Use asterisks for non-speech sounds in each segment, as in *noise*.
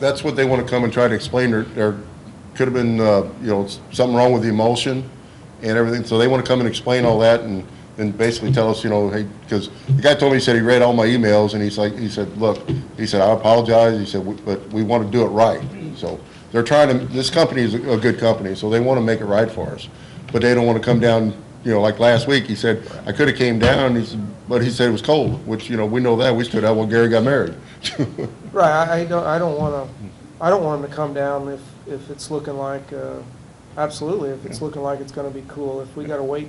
That's what they want to come and try to explain, there, there could have been, uh, you know, s- something wrong with the emulsion and everything, so they want to come and explain all that and, and basically tell us, you know, hey, because the guy told me, he said he read all my emails, and he's like, he said, look, he said, I apologize, he said, "We- but we want to do it right, so they're trying to, this company is a a good company, so they want to make it right for us, but they don't want to come down, you know, like last week, he said, I could have came down, he said, but he said it was cold, which, you know, we know that, we stood out when Gary got married. *laughs* Right, I, I don't, I don't want to, I don't want them to come down if, if it's looking like, uh, absolutely, if it's looking like it's going to be cool. If we got to wait,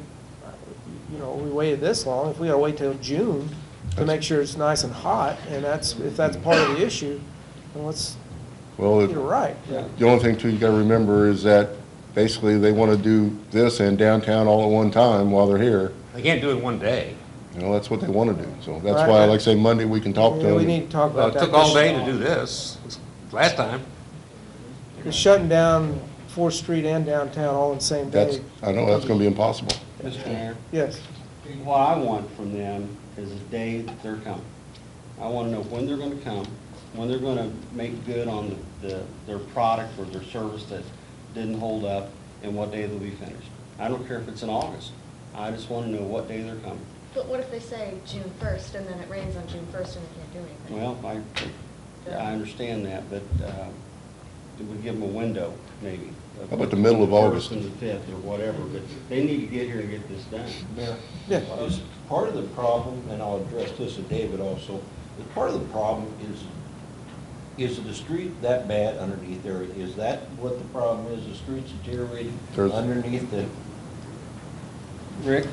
you know, we waited this long, if we got to wait till June to make sure it's nice and hot, and that's, if that's part of the issue, then let's Well, get it it- right. The only thing too, you gotta remember is that basically they wanna do this and downtown all at one time while they're here. They can't do it in one day. You know, that's what they wanna do. So that's why, like I say, Monday, we can talk to Yeah, them. We need to talk Well, about it that. took all day to do this, last time. Just Shutting down Fourth Street and downtown all in the same That's, day. I know, that's gonna be impossible. Mr. Mayor, Yes. what I want from them is the day that they're coming. I want to know when they're going to come, when they're going to make good on the- the, their product or their service that didn't hold up, and what day they'll be finished. I don't care if it's in August. I just want to know what day they're coming. But what if they say June first, and then it rains on June first and they can't do anything? Well, I, I understand that, but uh, it would give them a window, maybe. How about the middle of August? First and the fifth, or whatever, but they need to get here and get this done. Mayor? Yeah. Is part of the problem, and I'll address this to David also, is part of the problem is, is the street that bad underneath there? Is that what the problem is, the street's deteriorating There's- underneath the? Rick,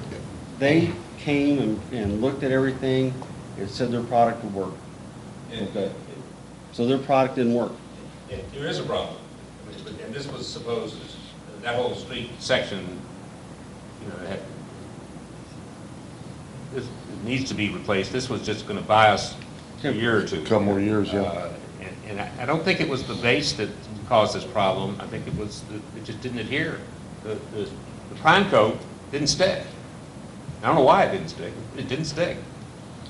they came and, and looked at everything and said their product would work. Okay. So their product didn't work. Yeah, There is a problem, But- and this was supposed, that whole street section, you know, had, this it needs to be replaced, this was just gonna buy us a year or two. Couple more years, yeah. Uh, and- And I, I don't think it was the base that caused this problem, I think it was, that it just didn't adhere. The, the, the prime coat didn't stick. I don't know why it didn't stick, it didn't stick.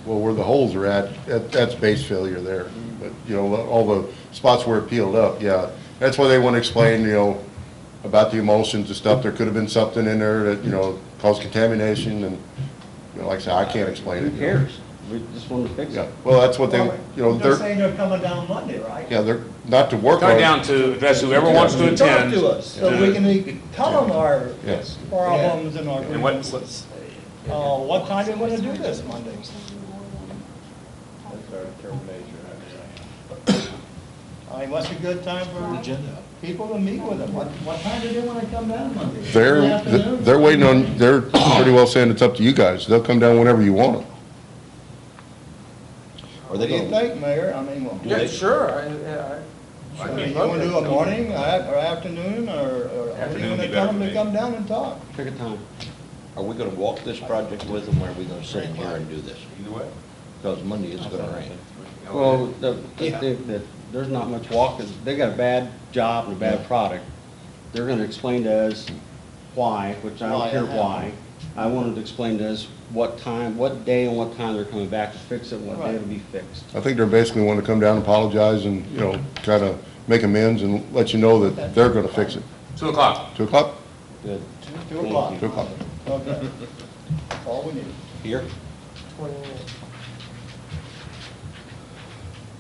Well, where the holes are at, that, that's base failure there. But, you know, all the spots where it peeled up, yeah. That's why they want to explain, you know, about the emulsions and stuff. There could have been something in there that, you know, caused contamination and, you know, like I said, I can't explain it. Who you know. cares? We just wanted to fix Yeah, it. well, that's what they, you know, They're they're, saying they're coming down Monday, right? yeah, they're, not to work on it. Go down to address whoever wants to Talk attend. to us, so we can tell them our Yes. problems and our And what, grievances. what's, Uh, what time you gonna do this Monday? That's our determination, I I mean, what's a good time for people to meet with them? What, what time do they wanna come down Monday? In the They're, afternoon? they're waiting on, they're pretty well saying it's up to you guys. They'll come down whenever you want them. Are What they do you gonna, think, Mayor? I mean, well, Yeah, sure, I, I- I. I mean, you wanna do a morning, or a- or afternoon, or, or when you Afternoon would wanna be better tell them for to me. come down and talk? Pick a time. are we gonna walk this project with them, or are we gonna sit in here and do this? Either way. Because Monday it's gonna rain. Well, the, the thing that, there's not much walking, they got a bad job and a bad product. They're gonna explain to us why, which I Why don't it care happened. why. I wanted to explain to us what time, what day and what time they're coming back to fix it, what day it'll be fixed. I think they're basically wanting to come down, apologize and, you know, kind of make amends and let you know that they're going to fix it. Two o'clock. Two o'clock? Good. Two o'clock. Two o'clock. Okay. All we need. Here?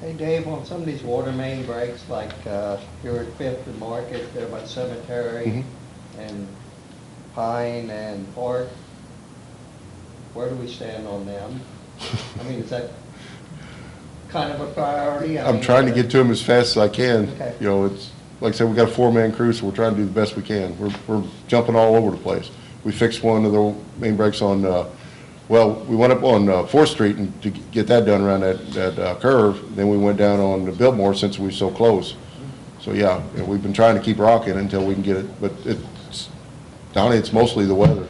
Hey Dave, on some of these water main breaks, like uh, here at Fifth and Market, there by Mhm. Cemetery and Pine and Park, where do we stand on them? I mean, is that kind of a priority? I I'm mean, uh, trying to get to them as fast as I can. Okay. You know, it's, like I said, we got a four-man crew, so we're trying to do the best we can. We're, we're jumping all over the place. We fixed one of the main breaks on, uh, well, we went up on uh, Fourth Street and to get that done around that, that uh, curve. Then we went down on the Biltmore since we were so close. So, yeah, you know, we've been trying to keep rocking until we can get it, but it's, Donnie, it's mostly the weather.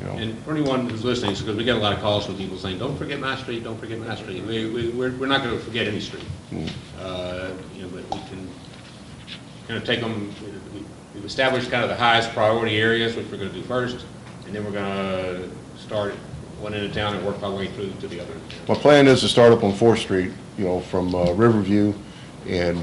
You know, and for anyone who's listening, because we get a lot of calls from people saying, don't forget my street, don't forget my street. We, we, we're, we're not gonna forget any street. Uh, you know, but we can kind of take them, we've established kind of the highest priority areas, which we're gonna do first, and then we're gonna start at one end of town and work our way through to the other. My plan is to start up on Fourth Street, you know, from uh, Riverview and